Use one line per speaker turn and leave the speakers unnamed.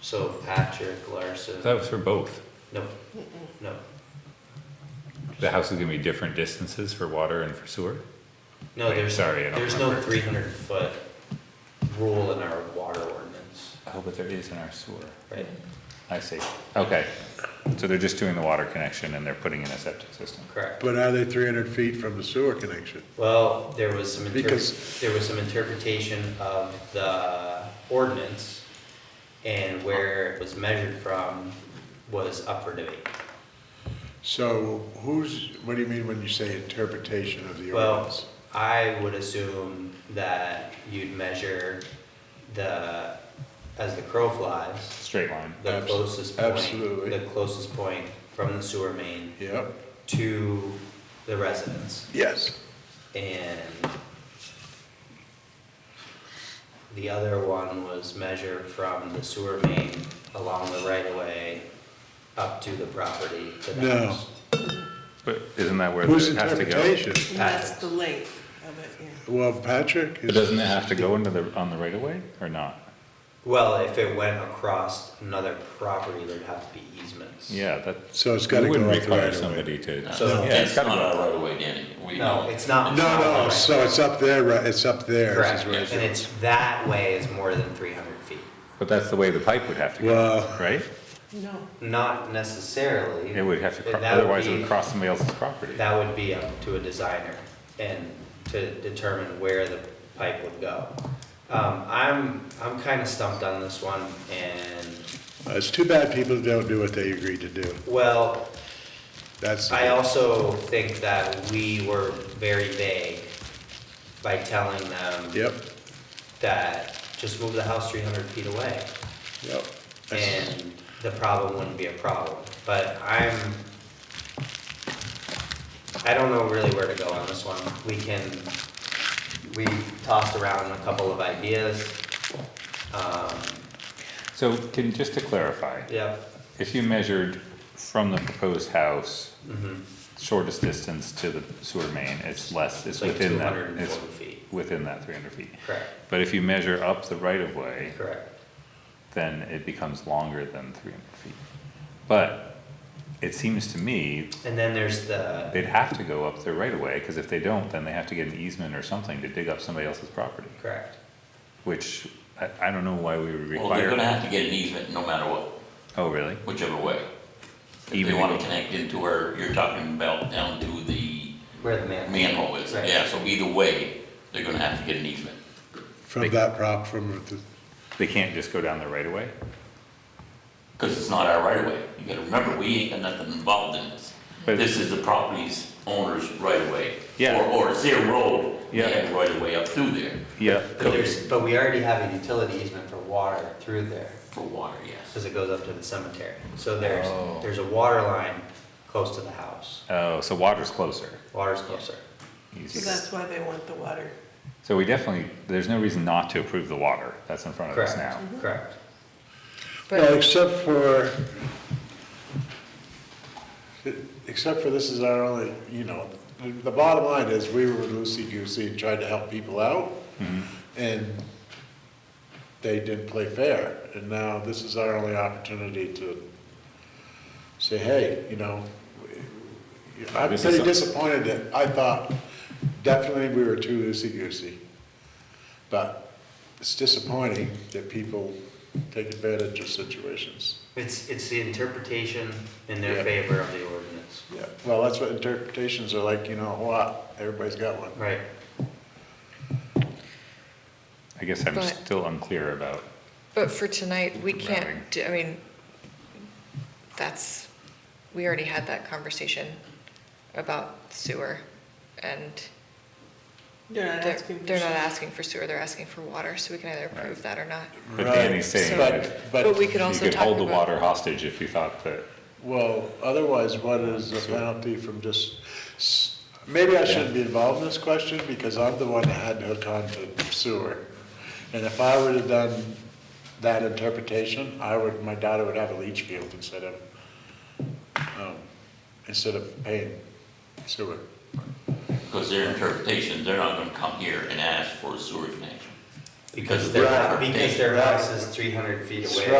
So Patrick Larson,
That was for both.
no, no,
The house is gonna be different distances for water and for sewer?
no,
Wait,
there's,
sorry, I don't
there's no
remember.
three hundred foot rule in our water ordinance,
Oh, but there is in our sewer.
right?
I see. Okay. So they're just doing the water connection and they're putting in a septic system.
Correct.
But are they three hundred feet from the sewer connection?
Well, there was some inter-
Because-
there was some interpretation of the ordinance and where it was measured from was up for debate.
So who's, what do you mean when you say interpretation of the
Well-
ordinance?
I would assume that you'd measure the, as the crow flies,
Straight line.
the
Abs-
closest point.
absolutely.
The closest point from the sewer main
Yep,
to the residence.
yes.
And the other one was measure from the sewer main along the right of way up to the property to the
No.
house.
But isn't that where
Whose
it has to go?
interpretation?
And that's the length of it, yeah.
Well, Patrick
But
is.
Doesn't it have to go into the, on the right of way or not?
Well, if it went across another property, there'd have to be easements.
Yeah, that's.
So it's gotta
we
go
wouldn't
off the
require
right of way.
Somebody to.
So
Yeah, it's
that's
gotta
not
go.
our right of way, Danny. We
No,
don't-
it's not.
No, no,
it's
so it's up there, right, it's up there. is
Correct,
where
and it's that way is more than three hundred feet.
But that's the way the pipe would have to go,
Well,
right?
No,
Not necessarily.
It would have to, cro-
That would
otherwise it would
be-
cross somebody else's property.
That would be up to a designer and to determine where the pipe would go. Um, I'm, I'm kinda stumped on this one and,
it's too bad people don't do what they agreed to do.
well,
That's.
I also think that we were very vague by telling them
Yep,
that just move the house three hundred feet away.
yep.
and the problem wouldn't be a problem. But I'm, I don't know really where to go on this one. We can, we tossed around a couple of ideas. Um,
So can, just to clarify,
yeah,
if you measured from the proposed house,
mhm.
shortest distance to the sewer main, it's less, it's
it's like
within
two
that,
hundred and
it's
forty feet.
within that three hundred feet.
Correct,
But if you measure up the right of way,
correct.
then it becomes longer than three hundred feet. But it seems to me
And then there's the,
they'd have to go up their right of way, cause if they don't, then they have to get an easement or something to dig up somebody else's property,
correct.
which I, I don't know why we would
Well, they're
require.
gonna have to get an easement no matter what,
Oh, really?
whichever way. If they
Even
wanna
if-
connect into where you're talking about down to the
Where the man.
manhole is,
Right.
yeah, so either way, they're gonna have to get an easement.
From that prop, from the,
They can't just go down the right of way?
Cause it's not our right of way. You gotta remember, we ain't got nothing involved in this.
But-
This is the property's owner's right of way.
Yeah.
Or, or it's their road, they
Yeah.
have the right of way up through there
Yeah.
But there's, but we already have a utility easement for water through there.
for water, yes.
because it goes up to the cemetery. So there's,
Oh.
there's a water line close to the house.
Oh, so water's closer,
Water's closer.
so
easier.
that's why they want the water.
So we definitely, there's no reason not to approve the water that's in front of us
Correct,
now.
correct.
well, except for, except for this is our only, you know, the- the bottom line is we were loosey-goosey and tried to help people out. And they didn't play fair. And now this is our only opportunity to say, hey, you know, I'm
This is
pretty
some-
disappointed that I thought definitely we were too loosey-goosey. But it's disappointing that people take advantage of situations.
It's, it's the interpretation in their
Yeah.
favor of the ordinance.
Yeah, well, that's what interpretations are like, you know, what, everybody's got one.
Right.
I guess I'm
But-
still unclear about,
But for tonight, we
Routing.
can't, do- I mean, that's, we already had that conversation about sewer. And
They're not
they're,
asking. for
they're not
sewer.
asking for sewer, they're asking for water, so we can either approve that or not.
but
Right,
Danny's saying
so-
that
But we could
you
also
could
talk
hold the
about-
water hostage if you thought that,
Well, otherwise, what is the penalty from just, s- maybe I shouldn't be involved in this question because I'm the one that had to hook on to sewer. And if I would have done that interpretation, I would, my daughter would have a leach field instead of, um, instead of paying sewer.
Because their interpretation, they're not gonna come here and ask for a sewer connection. Because
their-
they're-
Because their house is three hundred feet away